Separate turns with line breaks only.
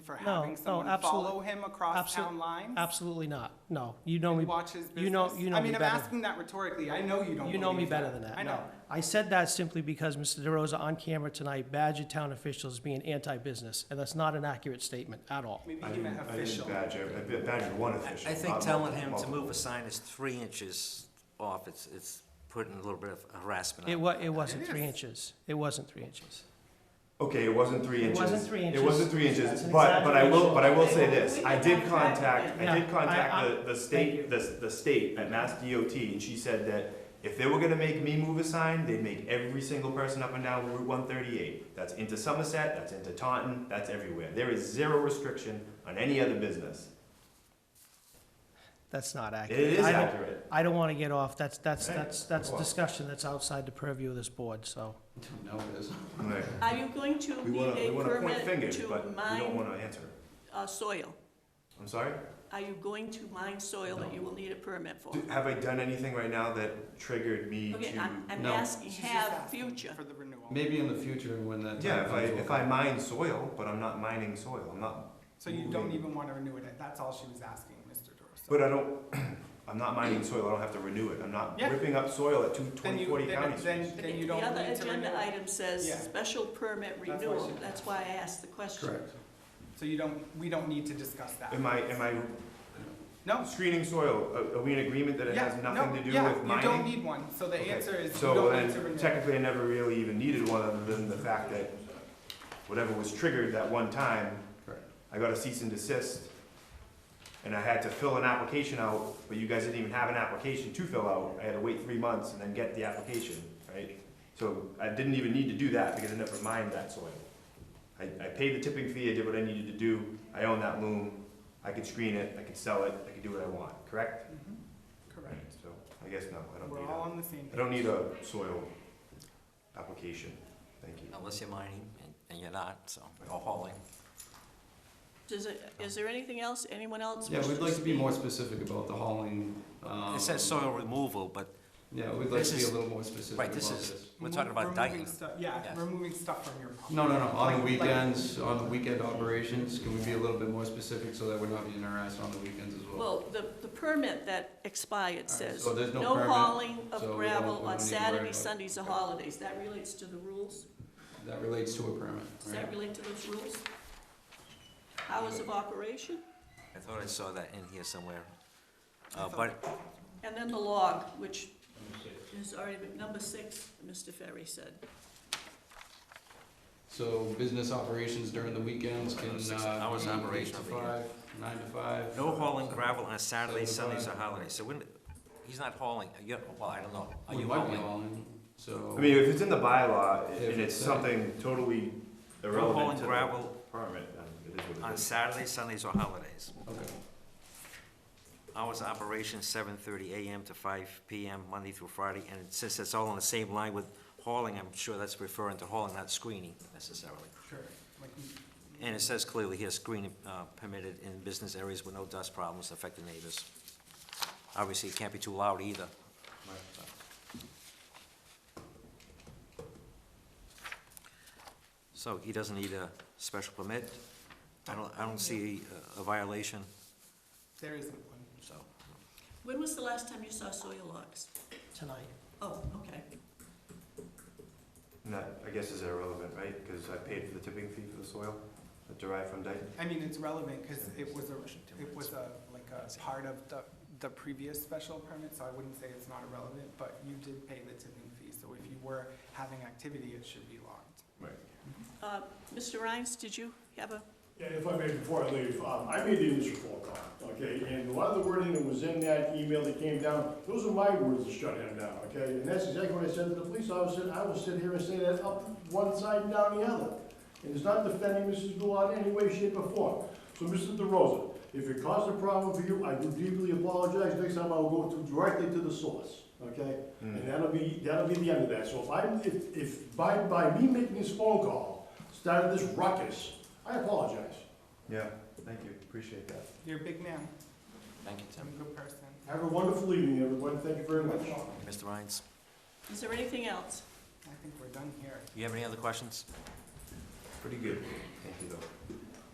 for
No,
having
no,
someone
absolute-
follow him across
Abso-
town lines?
Absolutely not. No, you know me.
And watch his business?
you know- you know
I
me
mean, I'm
better.
asking that rhetorically. I know you don't
You know me
believe
better than that.
I
no.
know.
I said that simply because Mr. DeRosa on camera tonight badgered town officials as being anti-business, and that's not an accurate statement at all.
Maybe
I
he
didn't,
meant
I
official.
didn't badge, every- I badgered one
I
official.
I think
not
telling
multiple-
him to move a
multiple.
sign is three inches off, it's, it's putting a little bit of harassment
It
on
wa, it wasn't
is.
three inches. It wasn't three inches.
Okay, it wasn't three
It
inches.
wasn't three inches.
It wasn't three
That's
inches,
an
but, but I will,
exaggeration.
but I will say this, I did contact, I
Yeah,
did
I- I-
contact the, the
you.
state, the, the state at Mass DOT, and she said that if they were gonna make me move a sign, they'd make every single person up and down Route one thirty-eight. That's into Somerset, that's into Taunton, that's everywhere. There is zero restriction on any other business.
That's not
It
accurate.
is
I don't-
accurate.
I don't want to get off. That's, that's,
Hey,
that's, that's a
well.
discussion that's outside the purview of this board, so.
No, it isn't.
Right.
Are you going to
We
leave
wanna, we
a
wanna point
permit
fingers,
to
but we don't
mine
wanna answer.
uh, soil?
I'm sorry?
Are you going to mine soil that you will need a permit for?
Do- Have I done anything right now that triggered me
Okay,
to?
I'm, I'm
No.
asking,
She's just
have
asking
future.
For the renewal.
Maybe in the future when that. time
Yeah, if I,
comes,
if
we'll-
I mine soil, but I'm not mining soil, I'm not,
So you don't even want to renew it. That's all she was asking, Mr. Dorso.
but I don't, I'm not mining soil, I don't have to renew it, I'm not
Yeah.
ripping up soil at two,
Then
twenty,
you,
forty
then,
county streets.
then, then you don't
The
need
other
to renew
agenda
it.
item says
Yeah.
special permit
why she
renewal,
did
that's why I asked the question.
Correct.
So you don't, we don't need to discuss that.
Am I, am I
No.
screening soil, are, are we in agreement that it
Yeah,
has
no,
nothing to do
yeah,
with
You don't
mining?
need one. So the
Okay.
answer is you
So
don't need to
then
renew.
technically I never really even needed one other than the fact that whatever was triggered that one time,
Correct.
I got a cease and desist. And I had to fill an application out, but you guys didn't even have an application to fill out. I had to wait three months and then get the application, right? So I didn't even need to do that because I never mined that soil. I, I paid the tipping fee, I did what I needed to do, I own that loom, I could screen it, I could sell it, I could do what I want, correct?
Mhm.
Right,
Correct.
so I guess no, I don't
We're
need
all
a,
on the same
I
page.
don't need a soil application, thank you.
it, unless you're mining, and- and you're not, so, or hauling.
Is it, is there anything else, anyone else?
Yeah,
wish
we'd like to be
speak?
more specific about the hauling. um,
It says soil removal, but,
Yeah, we'd like
This
to be a
is-
little more specific
right,
about
this
this.
is, we're talking
Remo-
about
removing
Dayton.
stuff- Yeah,
Yes.
removing stuff from your property.
No, no, no, on the
Like- like-
weekends, on the weekend operations, can we be a little bit more specific so that we're not being harassed on the weekends as well?
Well, the, the permit that expired
All right,
says,
so there's no
no
permit,
hauling
so we
of
don't- we
gravel
don't
on
need to worry about
Saturday,
it.
Sundays, or
Okay.
holidays. That relates to the rules?
That relates to a permit,
Does that
right?
relate to those rules? Hours of operation?
I thought I saw that in here somewhere.
I
Uh,
thought-
but
And then the log, which is already, number six, Mr. Ferry said.
So business operations during the weekends can,
Six
uh,
hours
be eight
operation
to
over here.
five, nine to five.
no hauling gravel on Saturdays,
Seven to
Sundays, or holidays, so when, he's not hauling, Are you well, I don't know, are
We
you
might be
hauling?
hauling, so.
I mean, if it's in the bylaw
If
and it's
it's, uh,
something totally
No
irrelevant
hauling
to the
gravel
permit, then it is what it
on
is.
Saturdays, Sundays, or holidays.
Okay.
Hours of operation, seven thirty AM to five PM, Monday through Friday, and since that's all on the same line with hauling, I'm sure that's referring to hauling, not screening necessarily.
Sure, like-
And it says clearly here, screening uh, permitted in business areas with no dust problems affecting neighbors. Obviously, it can't be too loud either. So he doesn't need a special permit? I don't, I don't see a- a violation,
There isn't one.
so.
When was the last time you saw soil logs?
Tonight.
Oh, okay.
And that, I guess, is irrelevant, right? Because I paid for the tipping fee for the soil that derived from Dayton.
I mean, it's relevant because it was a, it was a, like a part of the, the previous special permit, so I wouldn't say it's not irrelevant, but you did pay the tipping fee, so if you were having activity, it should be logged.
Right.
Uh, Mr. Rhines, did you have a,
Yeah, if I may, before I leave, um, I made the initial phone call, okay, and a lot of the wording that was in that email that came down, those are my words that shut him down, okay? And that's exactly what I said to the police officer, I will sit here and say that up one side and down the other. And it's not defending Mrs. Goulart in any way, shape, or form. So, Mr. DeRosa, if it caused a problem for you, I do deeply apologize, next time I will go to, directly to the source, okay? And that'll be, that'll be the end of that, so if I, if, if, by, by me making this phone call, started this ruckus, I apologize.
Yeah, thank you, appreciate that.
You're a big man,
Thank you,
you're a good person.
Have a wonderful evening, everyone. Thank you very much.
Mr. Rhines,
is there anything else?
I think we're done here.
you have any other questions?
Pretty good, thank you though.